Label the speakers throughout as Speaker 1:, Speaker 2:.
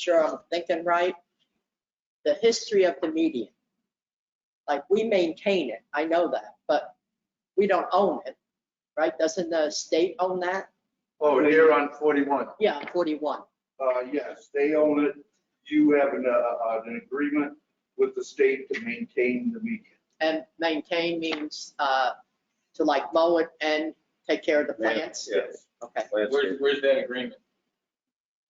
Speaker 1: sure I'm thinking right, the history of the median. Like, we maintain it, I know that, but we don't own it, right? Doesn't the state own that?
Speaker 2: Oh, here on 41.
Speaker 1: Yeah, 41.
Speaker 2: Uh, yes, they own it. You have an, uh, an agreement with the state to maintain the median.
Speaker 1: And maintain means uh, to like mow it and take care of the plants?
Speaker 2: Yes.
Speaker 1: Okay,
Speaker 3: Where's, where's that agreement?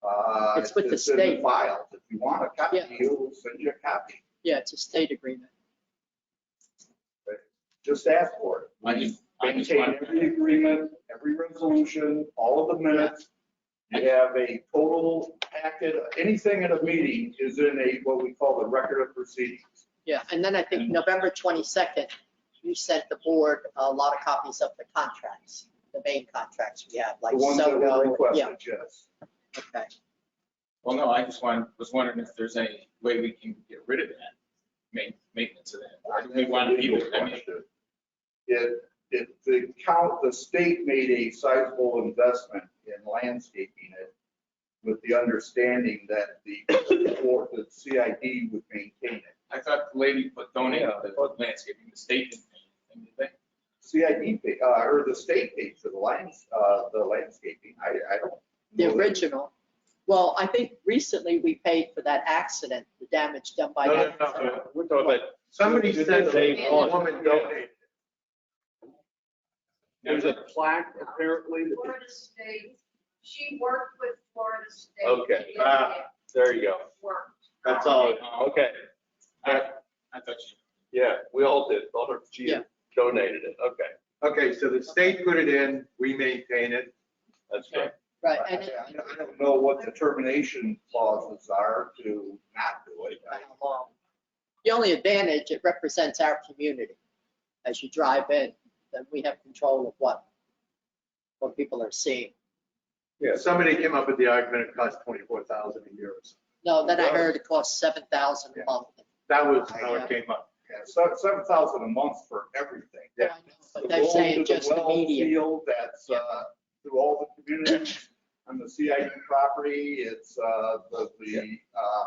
Speaker 2: Uh,
Speaker 1: It's with the
Speaker 2: in
Speaker 1: state.
Speaker 2: Files. If you want a copy,
Speaker 1: Yeah.
Speaker 2: we'll send you a copy.
Speaker 1: yeah, it's a state agreement.
Speaker 2: Just ask for
Speaker 3: I
Speaker 2: it.
Speaker 3: just- I just
Speaker 2: Maintain
Speaker 3: want-
Speaker 2: every agreement, every resolution, all of the minutes. You have a total packet, anything in a meeting is in a, what we call the record of proceedings.
Speaker 1: Yeah, and then I think
Speaker 2: Mm-hmm.
Speaker 3: And-
Speaker 1: November 22nd, you sent the board a lot of copies of the contracts, the main contracts we have, like
Speaker 2: The ones that were
Speaker 1: Soto. Yeah,
Speaker 2: requested, yes.
Speaker 1: okay.
Speaker 3: Well, no, I just wanted, was wondering if there's any way we can get rid of that, ma- maintenance of that. Or do we want to leave it? I mean,
Speaker 2: If, if the count, the state made a sizable investment in landscaping it with the understanding that the, or the CID would maintain it.
Speaker 3: I thought the lady put, donated the landscaping, the state didn't pay anything, did
Speaker 2: CID, pay- uh, or the state paid for the lands, uh, the landscaping. I, I don't.
Speaker 1: The
Speaker 2: know that-
Speaker 1: original, well, I think recently we paid for that accident, the damage done by
Speaker 4: No, no,
Speaker 1: that.
Speaker 4: no, no, we're talking about,
Speaker 2: Somebody
Speaker 4: You
Speaker 2: said
Speaker 4: did say
Speaker 2: the
Speaker 4: one.
Speaker 2: woman donated.
Speaker 3: they?
Speaker 4: there's a plaque apparently. that-
Speaker 5: Florida State, she worked with Florida State.
Speaker 4: Okay.
Speaker 5: She did
Speaker 4: Ah. There you go.
Speaker 5: get work.
Speaker 4: That's all. Okay,
Speaker 3: I, I thought you.
Speaker 4: yeah, we all did. All her, she
Speaker 1: Yeah.
Speaker 4: donated it. Okay,
Speaker 6: Okay, so the state put it in, we maintain it.
Speaker 4: that's good.
Speaker 1: Right,
Speaker 2: I
Speaker 1: and it-
Speaker 2: I don't- I don't know what the termination clauses are to not do it.
Speaker 1: by how long. The only advantage, it represents our community. As you drive in, then we have control of what, what people are seeing.
Speaker 6: Yeah, somebody came up with the argument it costs twenty-four thousand a year or something.
Speaker 1: No, then I heard it costs seven thousand a month.
Speaker 6: That was how it came up.
Speaker 2: uh, Yeah, so seven thousand a month for everything.
Speaker 1: I know, But they're saying just the median.
Speaker 2: Field that's, uh, through all the communities on the CID property, it's, uh, the, the, uh,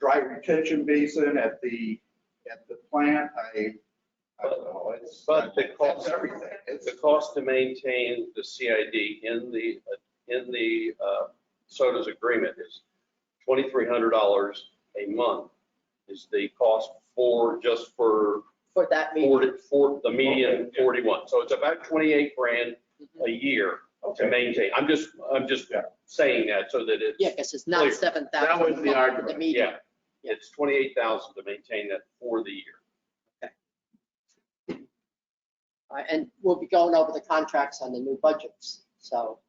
Speaker 2: dry retention basin at the, at the plant, I, I don't know, it's.
Speaker 4: But the cost-
Speaker 2: It's Everything, it's,
Speaker 4: The cost to maintain the CID in the, in the uh, SOTA's agreement is $2,300 a month is the cost for, just for,
Speaker 1: for that median.
Speaker 4: for for the median 41. So it's about 28 grand
Speaker 1: Mhm.
Speaker 4: a year to
Speaker 2: okay,
Speaker 4: maintain. I'm just, I'm just
Speaker 2: Yeah.
Speaker 4: saying that so that it's.
Speaker 1: Yeah, because it's not
Speaker 4: Clear.
Speaker 1: seven
Speaker 6: That
Speaker 1: thousand
Speaker 6: was
Speaker 1: a
Speaker 6: the
Speaker 1: month for the
Speaker 6: argument,
Speaker 1: median.
Speaker 4: Yeah, it's twenty-eight thousand to maintain that for the year.
Speaker 1: All right, Uh, And we'll be going over the contracts on the new budgets, so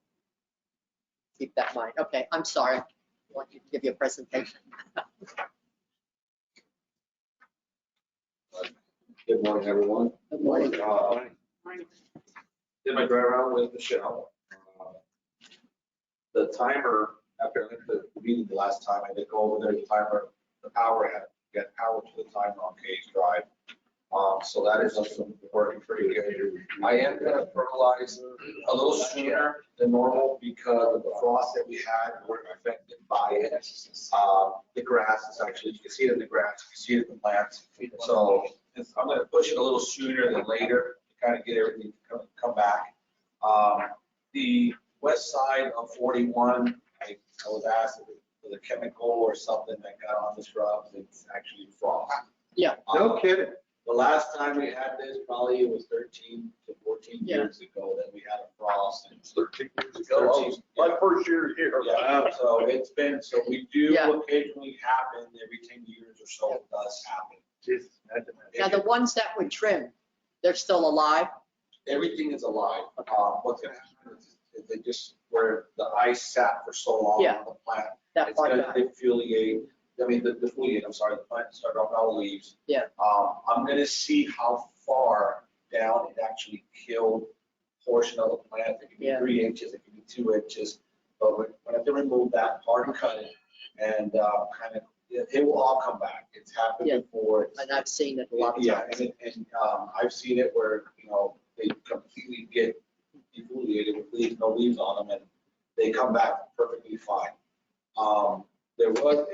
Speaker 1: keep that in mind. Okay, I'm sorry. I want you to give you a presentation.
Speaker 7: Good morning, everyone.
Speaker 1: Good morning.
Speaker 7: Uh, Did my drive around with Michelle. Uh, The timer, after the meeting the last time, I did go over there, the timer, the power had, get power to the timer on Cage Drive. Um, So that is something working pretty good. I am gonna fertilize a little sooner than normal because of the frost that we had, we're affected by it. Uh, The grass is actually, you can see it in the grass, you can see it in the plants. So it's- I'm gonna push it a little sooner than later, to kind of get everything to come, come back. Um, The west side of 41, I I was asked if it was a chemical or something that got on the shrubs, it's actually frost. Um,
Speaker 1: Yeah.
Speaker 6: No kidding.
Speaker 7: The last time we had this, probably it was 13 to 14
Speaker 1: Yeah.
Speaker 7: years ago that we had a frost. and-
Speaker 4: Thirteen years
Speaker 7: ago.
Speaker 4: My first year here.
Speaker 7: Yeah, so it's been, so we do
Speaker 1: Yeah.
Speaker 7: occasionally happen, every 10 years or so it does happen.
Speaker 6: Jesus, imagine that.
Speaker 1: Now, the ones that were trimmed, they're still alive?
Speaker 7: everything is alive. Uh, What's gonna happen is is they just, where the ice sat for so long
Speaker 1: Yeah.
Speaker 7: on the plant,
Speaker 1: That
Speaker 7: it's
Speaker 1: part
Speaker 7: gonna
Speaker 1: died.
Speaker 7: defoliate, I mean, the defoliate, I'm sorry, the plant started off all leaves.
Speaker 1: Yeah.
Speaker 7: Um, I'm gonna see how far down it actually killed portion of the plant. It could be
Speaker 1: Yeah.
Speaker 7: three inches, it could be two inches. But when when I have to remove that part and cut it and uh, kind of, it it will all come back. It's happened
Speaker 1: Yeah.
Speaker 7: before. It's-
Speaker 1: And I've seen it a lot of
Speaker 7: yeah,
Speaker 1: times.
Speaker 7: and, it- and, um, I've seen it where, you know, they completely get defoliated with leaves, no leaves on them, and they come back perfectly fine. Um, There was